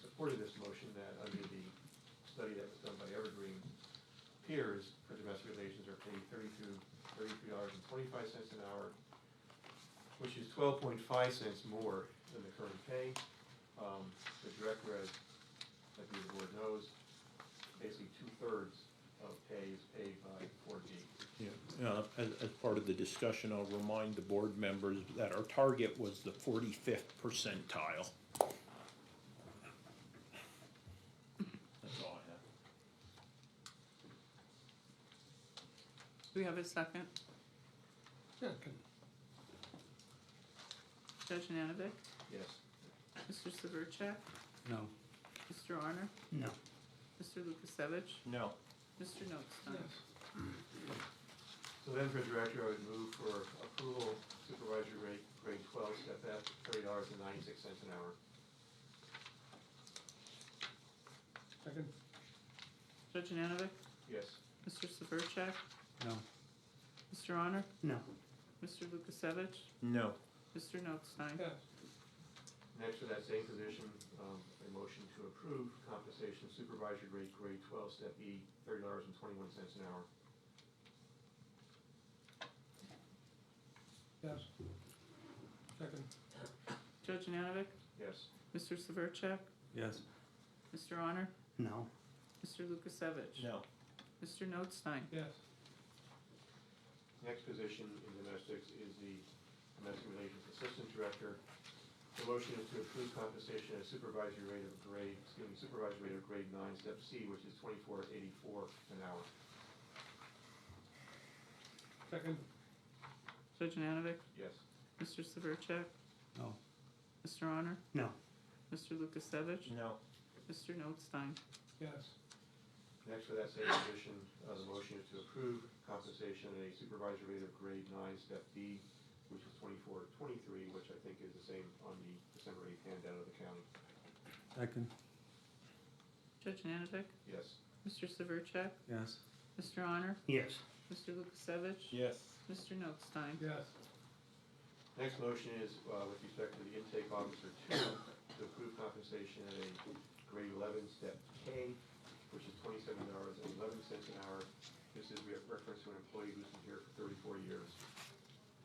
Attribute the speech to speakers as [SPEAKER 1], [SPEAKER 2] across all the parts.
[SPEAKER 1] supported this motion that under the study that was done by Evergreen, peers for domestic relations are paid thirty-two, thirty-three dollars and twenty-five cents an hour, which is twelve point five cents more than the current pay. Um, the director, as I believe the board knows, basically two-thirds of pay is paid by four D.
[SPEAKER 2] Yeah, uh, as, as part of the discussion, I'll remind the board members that our target was the forty-fifth percentile. That's all I have.
[SPEAKER 3] Do we have a second? Judge Nanovic?
[SPEAKER 1] Yes.
[SPEAKER 3] Mr. Severcek?
[SPEAKER 4] No.
[SPEAKER 3] Mr. Arner?
[SPEAKER 4] No.
[SPEAKER 3] Mr. Lukasevich?
[SPEAKER 2] No.
[SPEAKER 3] Mr. Notstein?
[SPEAKER 1] So then for director, I would move for approval supervisory rate, grade twelve, step F, thirty dollars and ninety-six cents an hour.
[SPEAKER 4] Second?
[SPEAKER 3] Judge Nanovic?
[SPEAKER 1] Yes.
[SPEAKER 3] Mr. Severcek?
[SPEAKER 4] No.
[SPEAKER 3] Mr. Honor?
[SPEAKER 4] No.
[SPEAKER 3] Mr. Lukasevich?
[SPEAKER 2] No.
[SPEAKER 3] Mr. Notstein?
[SPEAKER 1] Next, for that same position, um, a motion to approve compensation supervisory rate, grade twelve, step E, thirty dollars and twenty-one cents an hour.
[SPEAKER 4] Yes. Second?
[SPEAKER 3] Judge Nanovic?
[SPEAKER 1] Yes.
[SPEAKER 3] Mr. Severcek?
[SPEAKER 4] Yes.
[SPEAKER 3] Mr. Honor?
[SPEAKER 4] No.
[SPEAKER 3] Mr. Lukasevich?
[SPEAKER 2] No.
[SPEAKER 3] Mr. Notstein?
[SPEAKER 4] Yes.
[SPEAKER 1] Next position in domestics is the Domestic Relations Assistant Director. The motion is to approve compensation at supervisory rate of grade, excuse me, supervisory rate of grade nine, step C, which is twenty-four eighty-four an hour.
[SPEAKER 4] Second?
[SPEAKER 3] Judge Nanovic?
[SPEAKER 1] Yes.
[SPEAKER 3] Mr. Severcek?
[SPEAKER 4] No.
[SPEAKER 3] Mr. Honor?
[SPEAKER 4] No.
[SPEAKER 3] Mr. Lukasevich?
[SPEAKER 2] No.
[SPEAKER 3] Mr. Notstein?
[SPEAKER 4] Yes.
[SPEAKER 1] Next, for that same position, uh, the motion is to approve compensation at a supervisory rate of grade nine, step D, which is twenty-four twenty-three, which I think is the same on the December eighth handout of the county.
[SPEAKER 4] Second?
[SPEAKER 3] Judge Nanovic?
[SPEAKER 1] Yes.
[SPEAKER 3] Mr. Severcek?
[SPEAKER 4] Yes.
[SPEAKER 3] Mr. Honor?
[SPEAKER 4] Yes.
[SPEAKER 3] Mr. Lukasevich?
[SPEAKER 2] Yes.
[SPEAKER 3] Mr. Notstein?
[SPEAKER 4] Yes.
[SPEAKER 1] Next motion is, uh, with respect to the intake officer two, to approve compensation at a grade eleven, step K, which is twenty-seven dollars and eleven cents an hour. This is re- reference to an employee who's been here for thirty-four years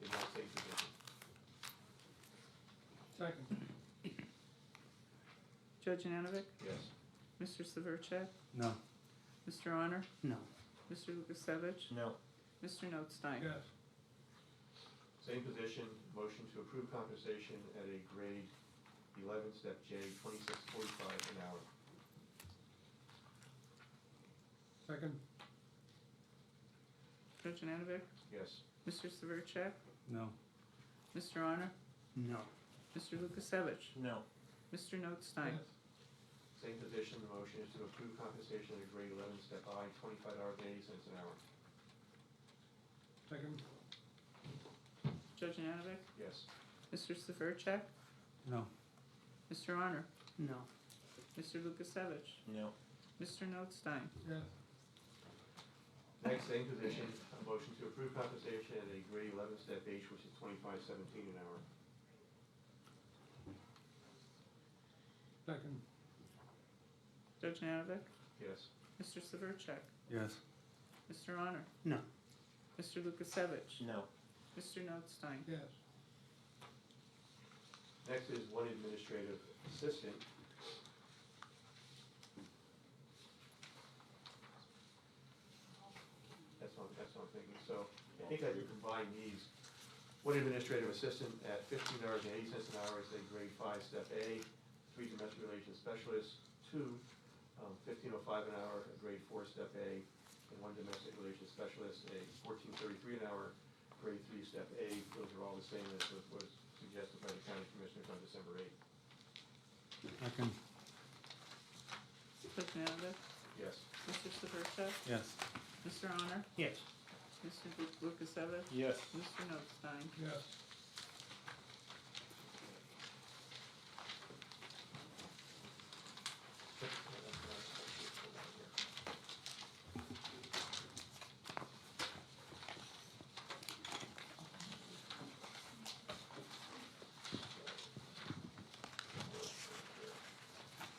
[SPEAKER 1] in that same position.
[SPEAKER 4] Second?
[SPEAKER 3] Judge Nanovic?
[SPEAKER 1] Yes.
[SPEAKER 3] Mr. Severcek?
[SPEAKER 4] No.
[SPEAKER 3] Mr. Honor?
[SPEAKER 4] No.
[SPEAKER 3] Mr. Lukasevich?
[SPEAKER 2] No.
[SPEAKER 3] Mr. Notstein?
[SPEAKER 4] Yes.
[SPEAKER 1] Same position, motion to approve compensation at a grade eleven, step J, twenty-six forty-five an hour.
[SPEAKER 4] Second?
[SPEAKER 3] Judge Nanovic?
[SPEAKER 1] Yes.
[SPEAKER 3] Mr. Severcek?
[SPEAKER 4] No.
[SPEAKER 3] Mr. Honor?
[SPEAKER 4] No.
[SPEAKER 3] Mr. Lukasevich?
[SPEAKER 2] No.
[SPEAKER 3] Mr. Notstein?
[SPEAKER 1] Same position, the motion is to approve compensation at a grade eleven, step I, twenty-five dollars and eighty cents an hour.
[SPEAKER 4] Second?
[SPEAKER 3] Judge Nanovic?
[SPEAKER 1] Yes.
[SPEAKER 3] Mr. Severcek?
[SPEAKER 4] No.
[SPEAKER 3] Mr. Honor?
[SPEAKER 4] No.
[SPEAKER 3] Mr. Lukasevich?
[SPEAKER 2] No.
[SPEAKER 3] Mr. Notstein?
[SPEAKER 4] Yes.
[SPEAKER 1] Next, same position, a motion to approve compensation at a grade eleven, step H, which is twenty-five seventeen an hour.
[SPEAKER 4] Second?
[SPEAKER 3] Judge Nanovic?
[SPEAKER 1] Yes.
[SPEAKER 3] Mr. Severcek?
[SPEAKER 4] Yes.
[SPEAKER 3] Mr. Honor?
[SPEAKER 4] No.
[SPEAKER 3] Mr. Lukasevich?
[SPEAKER 2] No.
[SPEAKER 3] Mr. Notstein?
[SPEAKER 4] Yes.
[SPEAKER 1] Next is one administrative assistant. That's what, that's what I'm thinking, so I think I could combine these. One administrative assistant at fifteen dollars and eighty cents an hour is a grade five, step A, three domestic relations specialists, two, um, fifteen oh five an hour, a grade four, step A, and one domestic relations specialist, a fourteen thirty-three an hour, grade three, step A, those are all the same as what was suggested by the county commissioners on December eighth.
[SPEAKER 4] Second?
[SPEAKER 3] Judge Nanovic?
[SPEAKER 1] Yes.
[SPEAKER 3] Mr. Severcek?
[SPEAKER 4] Yes.
[SPEAKER 3] Mr. Honor?
[SPEAKER 4] Yes.
[SPEAKER 3] Mr. Lukasevich?
[SPEAKER 2] Yes.
[SPEAKER 3] Mr. Notstein?
[SPEAKER 4] Yes.